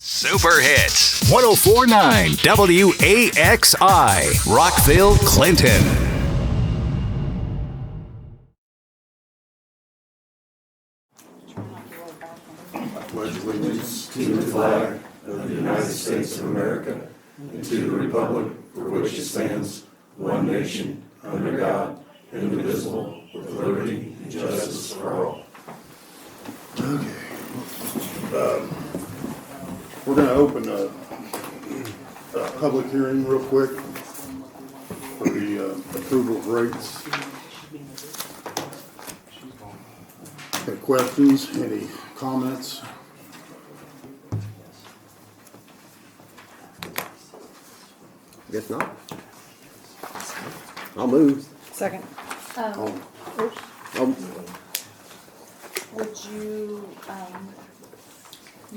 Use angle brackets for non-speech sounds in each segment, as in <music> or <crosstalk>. Super hits. 1049 WAXI, Rockville, Clinton. We're gonna open a, a public hearing real quick for the uh, approval of rates. Any questions, any comments? Guess not. I'll move. Second. I'll- I'll- Would you, um,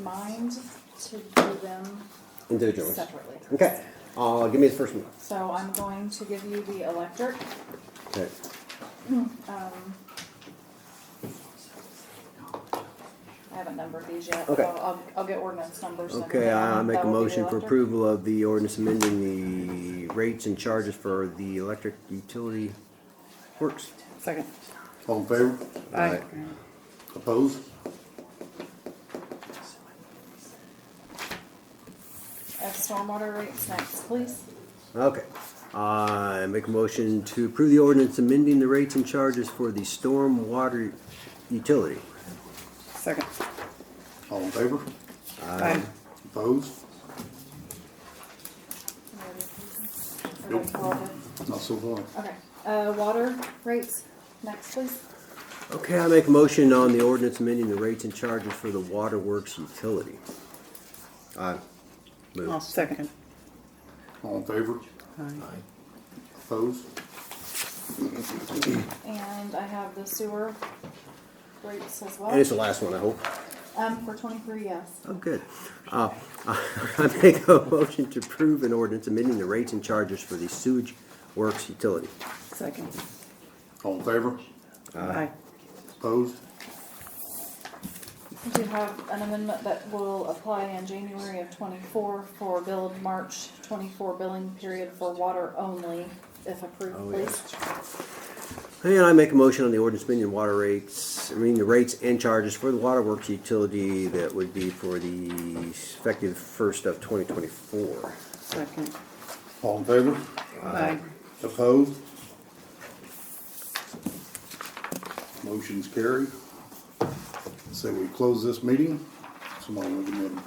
mind to do them Individually. separately? Okay, uh, give me the first one. So I'm going to give you the electric, Okay. um. I haven't numbered these yet, so Okay. I'll, I'll get ordinance numbers. and Okay, I I everything. make That a will be the motion for electric. approval of the ordinance amending the rates and charges for the electric utility works. Second. All in favor? Aye. Opposed? Uh, stormwater rates next, please. Okay, Uh, I make a motion to approve the ordinance amending the rates and charges for the storm water utility. Second. All in favor? Aye. Opposed? Nope. Not so far. Okay, uh, water rates next, please. Okay, I make a motion on the ordinance amending the rates and charges for the water works utility. I I'll move. second. All in favor? Opposed? And I have the sewer rates as And well. it's the last one, I hope. Um, for twenty-three, yes. Oh, good. Uh, <laughs> I make a motion to approve an ordinance amending the rates and charges for the sewage works utility. Second. All in favor? Aye. Opposed? We do have an amendment that will apply in January of twenty-four for bill of March twenty-four billing period for water only, if Oh, approved, yeah. please. And I make a motion on the ordinance amending water rates, I mean, the rates and charges for the water works utility that would be for the effective first of twenty twenty-four. Second. All in favor? Aye. Opposed? Motion's carried. Say we close this meeting. Somebody will give me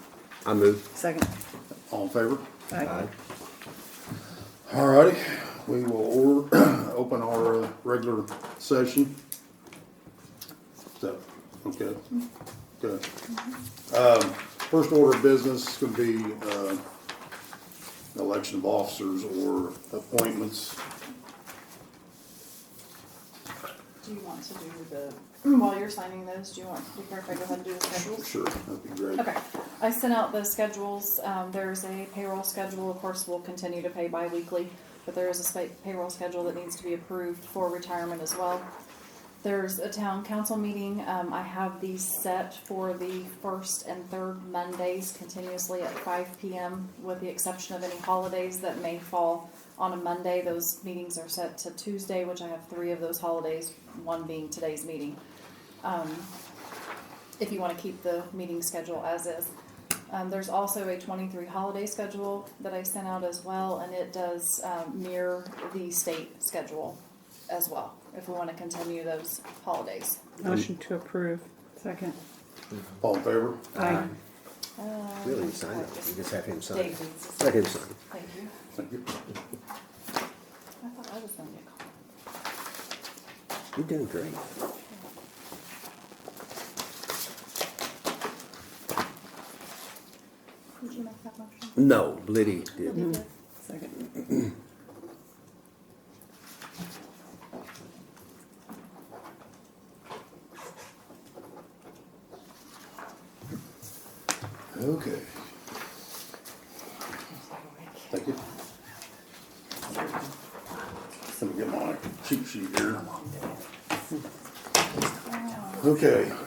I move. Second. a- all in favor? Aye. All righty, we will or, <clears throat> open our uh, regular session. So, okay, good. Um, First order of business is gonna be, uh, election of officers or appointments. Do you want to do the, while you're signing those, do you want to be careful, go ahead and do the schedules? Sure, that'd be great. Okay, I sent out the schedules, um, there's a payroll schedule, of course, we'll continue to pay bi-weekly, but there is a spa- payroll schedule that needs to be approved for retirement as well. There's a town council meeting, um, I have these set for the first and third Mondays continuously at five P M, with the exception of any holidays that may fall on a Monday, those meetings are set to Tuesday, which I have three of those holidays, one being today's meeting if you want to keep the meeting schedule as is. Um, there's also a twenty-three holiday schedule that I sent out as well, and it does, um, mirror the state schedule as well, if we want to continue those holidays. Motion to approve. Second. All in favor? Aye. Really, you sign it. You just have him sign. Dave it. needs to Let sign. him sign. Thank you. Thank you. I thought I was gonna get called. You're doing great. Did you make that motion? No, Liddy did. Lydia did. Second. Okay. Thank you. Let me get my cheat sheet here. Okay,